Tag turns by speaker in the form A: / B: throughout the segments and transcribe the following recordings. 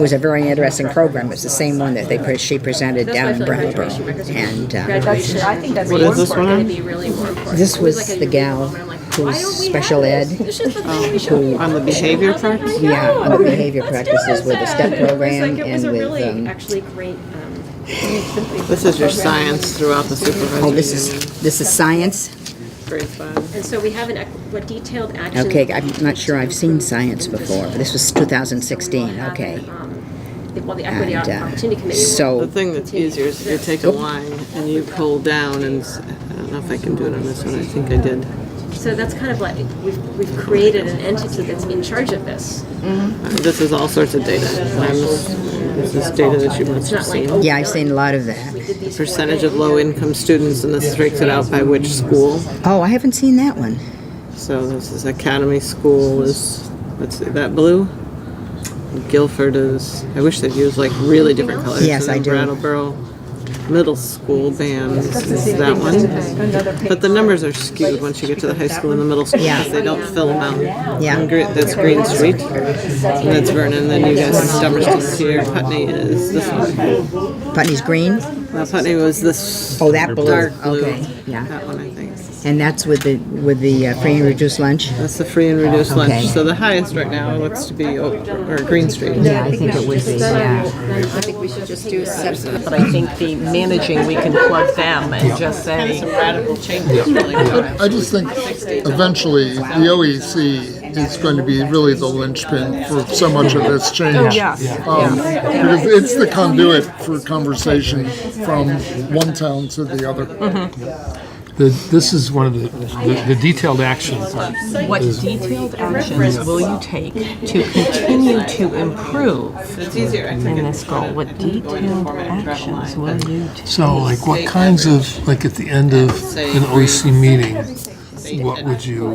A: was a very interesting program. It's the same one that they, pre- she presented
B: That's why I
A: down in
B: feel like graduation,
A: Brownborough.
B: because
A: And, uh,
B: graduation,
C: I think that's
B: will
C: What
B: be
C: is
D: this
B: important,
D: one?
B: It'd be really more important.
A: This
B: It was
A: was
B: like a
A: the
B: unique
A: gal
B: moment. I'm like,
A: who
B: why
A: was
B: don't we
A: special
B: have this?
A: ed,
B: This is the thing we showed you.
D: On the behavior
B: I was like,
D: practice?
B: I
A: yeah,
B: know.
A: on the behavior
B: Let's do
A: practices with the
B: this.
A: step
B: It was like-
A: program
B: It
A: and
B: was a
A: with,
B: really,
A: um,
B: actually great, um,
D: This is your science throughout the supervisory.
A: oh, this is, this is science?
D: union, Grade five.
B: and so we have an, ac- what detailed action.
A: Okay, I'm not sure I've seen science before. but This was
B: So we will
A: 2016,
B: have,
A: okay.
B: um, the- Well, the equity
A: And, uh,
B: opportunity committee. will-
D: The
A: So,
D: thing that's easier is you take a line and you pull down and, s- I don't know if I can do it on this one, I think I did.
B: So that's kind of like, we've, we've created an entity that's in charge of this.
D: Uh, This is all sorts of data. I'm s- This is data that you
B: It's
D: must
B: not
D: have
B: like,
D: seen.
B: oh,
A: yeah, I've seen a lot of
B: we
A: that.
B: did these four
D: Percentage of
B: things.
D: low-income students, and this breaks it out by which school.
A: Oh, I haven't seen that one.
D: So this is Academy School is, let's see, that blue? Guilford is, I wish they'd use like really different colors.
A: Yes, I do.
D: And then Brattleboro Middle School bands is that one. But the numbers are skewed once you get to the high school and the middle school.
A: Yeah.
D: because They don't fill them out.
A: Yeah.
D: And Gre- That's Green Street, and that's Vernon, then you guys have Dummerston here, Putney is this one.
A: Putney's Green?
D: Now Putney was this
A: Oh, that blue,
D: dark blue.
A: okay, yeah.
D: That one, I think.
A: And that's with the, with the uh, free and reduced lunch?
D: That's the free and reduced
A: Okay.
D: lunch. So the highest right now looks to be Oak, or Green Street.
A: Yeah, I think it would be, yeah.
C: I think we should just do substance, but I think the managing, we can plug them and just say,
D: Some radical changes really
E: I I just think eventually the OEC is going to be really the linchpin for so much of this change. Oh,
C: yeah.
E: Because it's the conduit for conversation from one town to the other.
C: Mm-hmm.
F: The, this is one of the, the, the detailed actions.
C: what detailed actions will you take to continue to improve
D: It's easier, I think.
C: in this goal? What detailed actions will you take?
F: So like what kinds of, like at the end of an OEC meeting, what would you,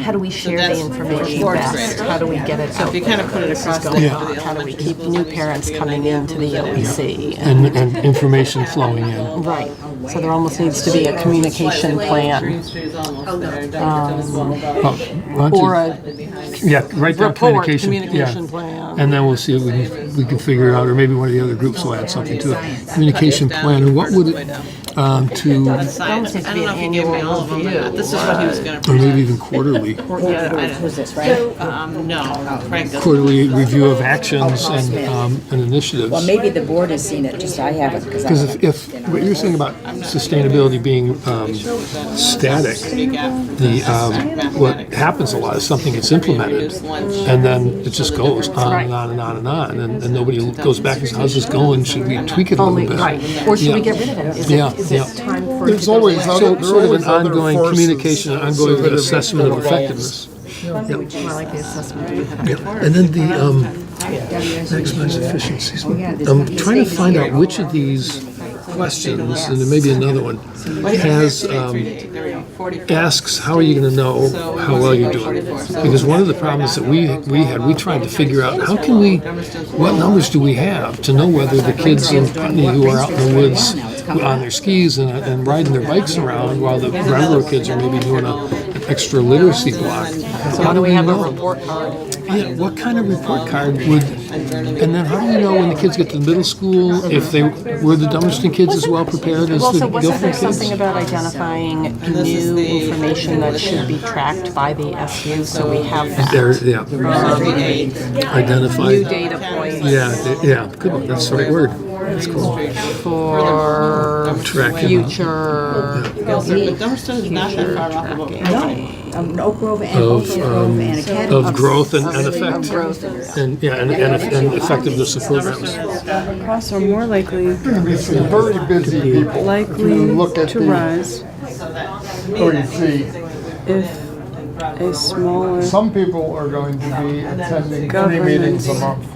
C: How do we share the information best? How do we get it out?
D: You kind of put it across the
F: Yeah.
D: for the
C: How do we
D: elementary
C: keep
D: schools,
C: new
D: so
C: parents
D: you have
C: coming
D: an idea
C: into
D: of
C: the
D: what that is.
C: OEC?
F: and, and information flowing in?
C: Right, so there almost needs to be a communication plan Um,
D: Green Street is
A: Oh,
D: almost there. Dumbarton is well above.
F: Oh, why don't you-
C: or a
F: Yeah, write down
C: report,
F: communication. yeah.
C: communication plan.
F: And then we'll see if we can, we can figure it out, or maybe one of the other groups will add something to it. Communication plan, and what would it, um, to,
D: Science. I don't know if you gave me all of them or not. This is what he was going
F: or
D: to.
F: maybe even quarterly,
A: Who's this, right?
D: Um, no, Frank doesn't.
F: quarterly review of actions and, um, and initiatives.
A: Well, maybe the board has seen it, just I haven't, because I.
F: Because if, if what you're saying about sustainability being um, static,
D: uh,
F: the um, what happens a lot is something gets implemented, and then it just goes on and on and on and on, and, and nobody goes back and says, "How's this going? Should we tweak it a little
C: Only,
F: bit?"
C: right, or should we
F: Yeah.
C: get rid of it? Is
F: Yeah,
C: it, is it
F: yeah.
C: time for it to
E: There's
C: go
E: always
C: away?
E: other,
F: So
E: there
F: sort of
E: always
F: an
E: other
F: ongoing
E: forces.
F: communication, an ongoing
E: that it
F: assessment of
E: overlaps.
F: effectiveness.
C: More like the assessment.
F: And then the um, maximize efficiencies.
C: Oh,
F: I'm trying to find out which of these questions, and there may be another one, has um,
D: There we go, 44.
F: asks, how are you going to know how well you're doing? Because one of the problems that we, we had, we tried to figure out, how can we, what numbers do we have to know whether the kids in Putney who are out in the woods on their skis and, and riding their bikes around while the Brattleboro kids are maybe doing a an extra literacy block? How do we
C: have a
F: know?
C: report card.
F: Yeah, what kind of report card would, and then how do you know when the kids get to middle school, if they, were the Dummerston kids as well prepared as
C: Well,
F: the
C: so wasn't there
F: Guilford
C: something
F: kids?
C: about identifying new information that should be tracked by the SU, so we have
F: There,
C: that?
F: yeah, identified.
C: New data points
F: Yeah, th- yeah, good one, that's the right word. That's cool.
C: for
F: Tracking.
C: future,
D: But Dumbarton is not that far off of Oak.
G: Um, Oak Grove and Oak
F: Of, um,
G: Grove and Academy.
F: of growth and, and effect. And, yeah, and, and eff- and effectiveness of programs.
H: costs are more likely
E: Very busy people.
H: likely
E: You look at
H: to
E: the-
H: rise
E: E OEC.
H: if a smaller
E: Some people are going to be attending three
H: Government.
E: meetings a month.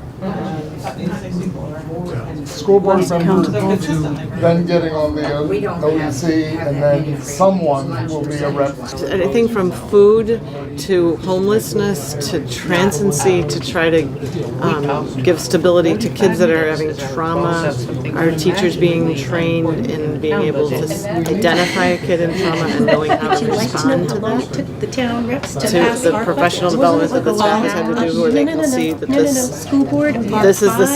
E: School board member, then getting on the OEC, and then someone will be a rep.
D: anything from food to homelessness to transiency to try to um, give stability to kids that are having trauma. Our teachers being trained in being able to s- identify a kid in trauma and knowing how to respond to that.
G: To the town reps to
D: To
G: pass
D: the
G: our
D: professional
G: budget.
D: development that the
G: Wasn't it
D: staff has had to do where they
G: like
D: can
G: a law?
D: see that
G: No, no, no,
D: this
G: School board.
D: this is the